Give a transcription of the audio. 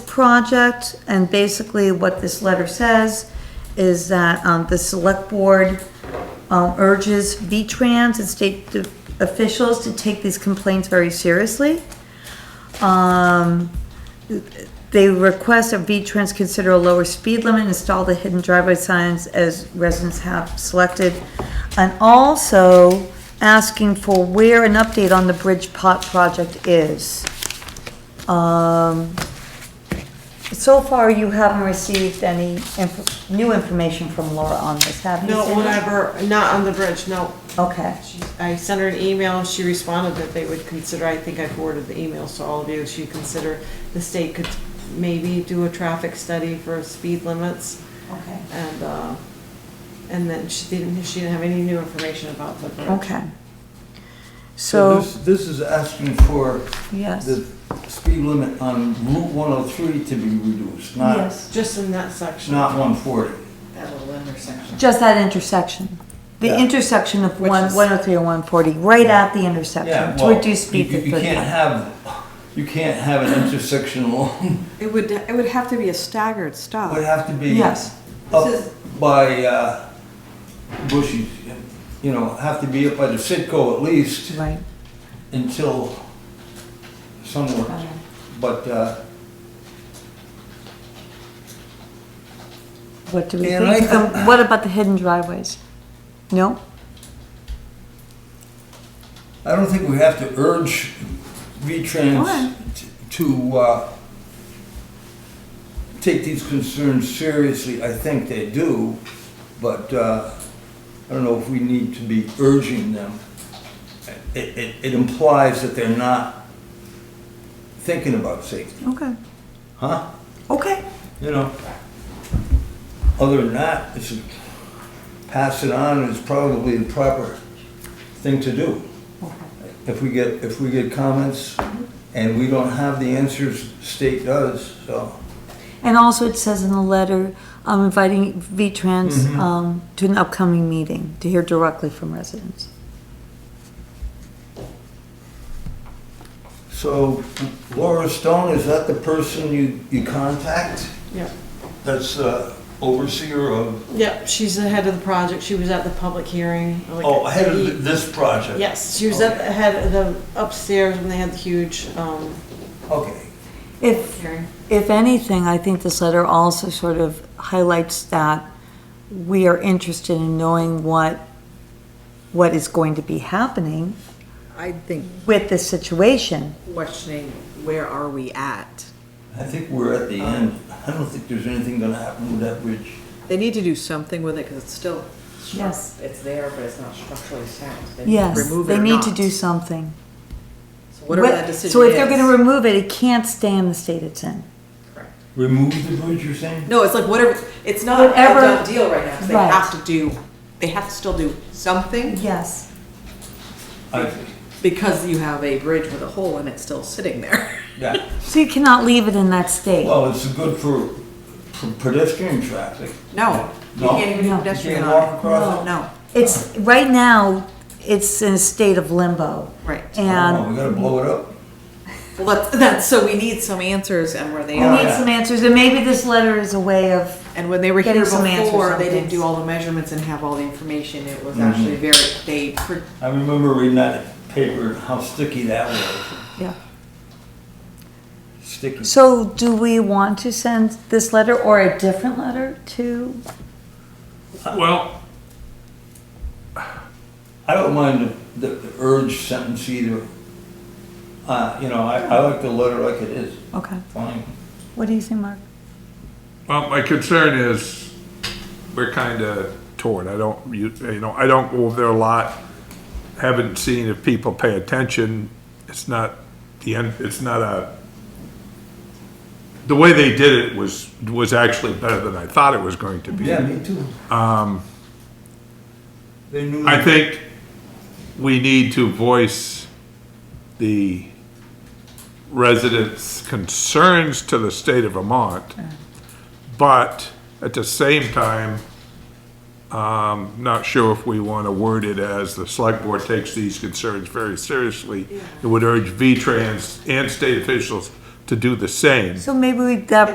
project, and basically what this letter says is that, um, the select board, um, urges V-Trans and state de- officials to take these complaints very seriously. Um, they request that V-Trans consider a lower speed limit, install the hidden driveway signs as residents have selected. And also asking for where an update on the Bridge Pot project is. Um, so far you haven't received any inf- new information from Laura on this, have you? No, Cindy? whatever, not on the bridge, no. Okay, She- I sent her an email, and she responded that they would consider, I think I forwarded the emails to all of you, she consider the state could maybe do a traffic study for speed limits, okay, and, uh, and then she didn't, she didn't have any new information about the bridge. okay. So, this- This is asking for yes, the speed limit on Route 103 to be reduced, not, yes, Just in that section. not 140. That little intersection. just that intersection. The Yeah. intersection of Which one, is- one oh three and one forty, right at the Yeah, intersection, to well, reduce speed you- to you- You can't thirty. have, you can't have an intersection alone, It would, it would have to be a staggered it would stop. have to be up Oh. Yes, by uh, Bushy's, you know, have to be up by the Sitco at least right, until somewhere, okay. but, uh, What do we And I think? think- Um, What about the hidden driveways? No? I don't think we have to urge V-Trans t- to uh, take these concerns seriously. I think they do, but uh, I don't know if we need to be urging them. It- It it implies that they're not thinking about safety, Okay, huh? okay, You know? Other than that, it's, pass it on is probably the proper thing to do. If we get, if we get comments Mm-hmm. and we don't have the answers, state does, so. and also it says in the letter, I'm inviting V-Trans, Mm-hmm. um, to an upcoming meeting to hear directly from residents. So Laura Stone, is that the person you, you contact? Yeah. That's uh, overseer of, Yep, she's the head of the project, she was at the public hearing. like, oh, head of the- th- this project? Yes, she was at the head of the upstairs when they had the huge, um, Okay, If hearing. If anything, I think this letter also sort of highlights that we are interested in knowing what, what is going to be happening I think with this situation. questioning where are we at? I think we're at the Um, end. I don't think there's anything gonna happen with that bridge. They need to do something with it because it's still. stru- Yes. It's there, but it's not structurally sound. They need to Yes, remove it they or need to not. do something. So Whatever What- that decision is. So if they're gonna remove it, it can't stay in the state it's in. Remove the bridge, you're saying? No, it's like whatever, it's not a Whatever- done deal right now. 'cause They Right. have to do, they have to still do something Yes. I- because you have a bridge with a hole and it's still sitting there. Yeah, So you cannot leave it in that state. well, it's good for for pedestrian traffic. No, you No. can't even do No. pedestrian Can't on walk it. across No, it? no, It's, right now, it's in a state of limbo. right. Oh, And We gotta blow it up. Well, that's, that's, so we need some answers and where they we are. need some answers, and maybe this letter is a way of And when they were Getting here some answers before, on they didn't things. do all the measurements and have all the information. It was actually very, they, pr- I remember reading that paper, how sticky that was. Yeah. Sticky. So do we want to send this letter or a different letter to? Well, I don't mind the, the urge sentence either. Uh, you know, I, I like the letter like it is, Okay, fine. what do you think, Mark? well, my concern is we're kind of torn. I don't, you, you know, I don't go over there a lot. Haven't seen if people pay attention. It's not the end, it's not a, the way they did it was, was actually better than I thought it was going to be. Yeah, me too. Um. They knew. I think we need to voice the residents' concerns to the state of Vermont, but at the same time, um, not sure if we want to word it as the select board takes these concerns very seriously. It would urge V-Trans and state officials to do the same. So maybe we, that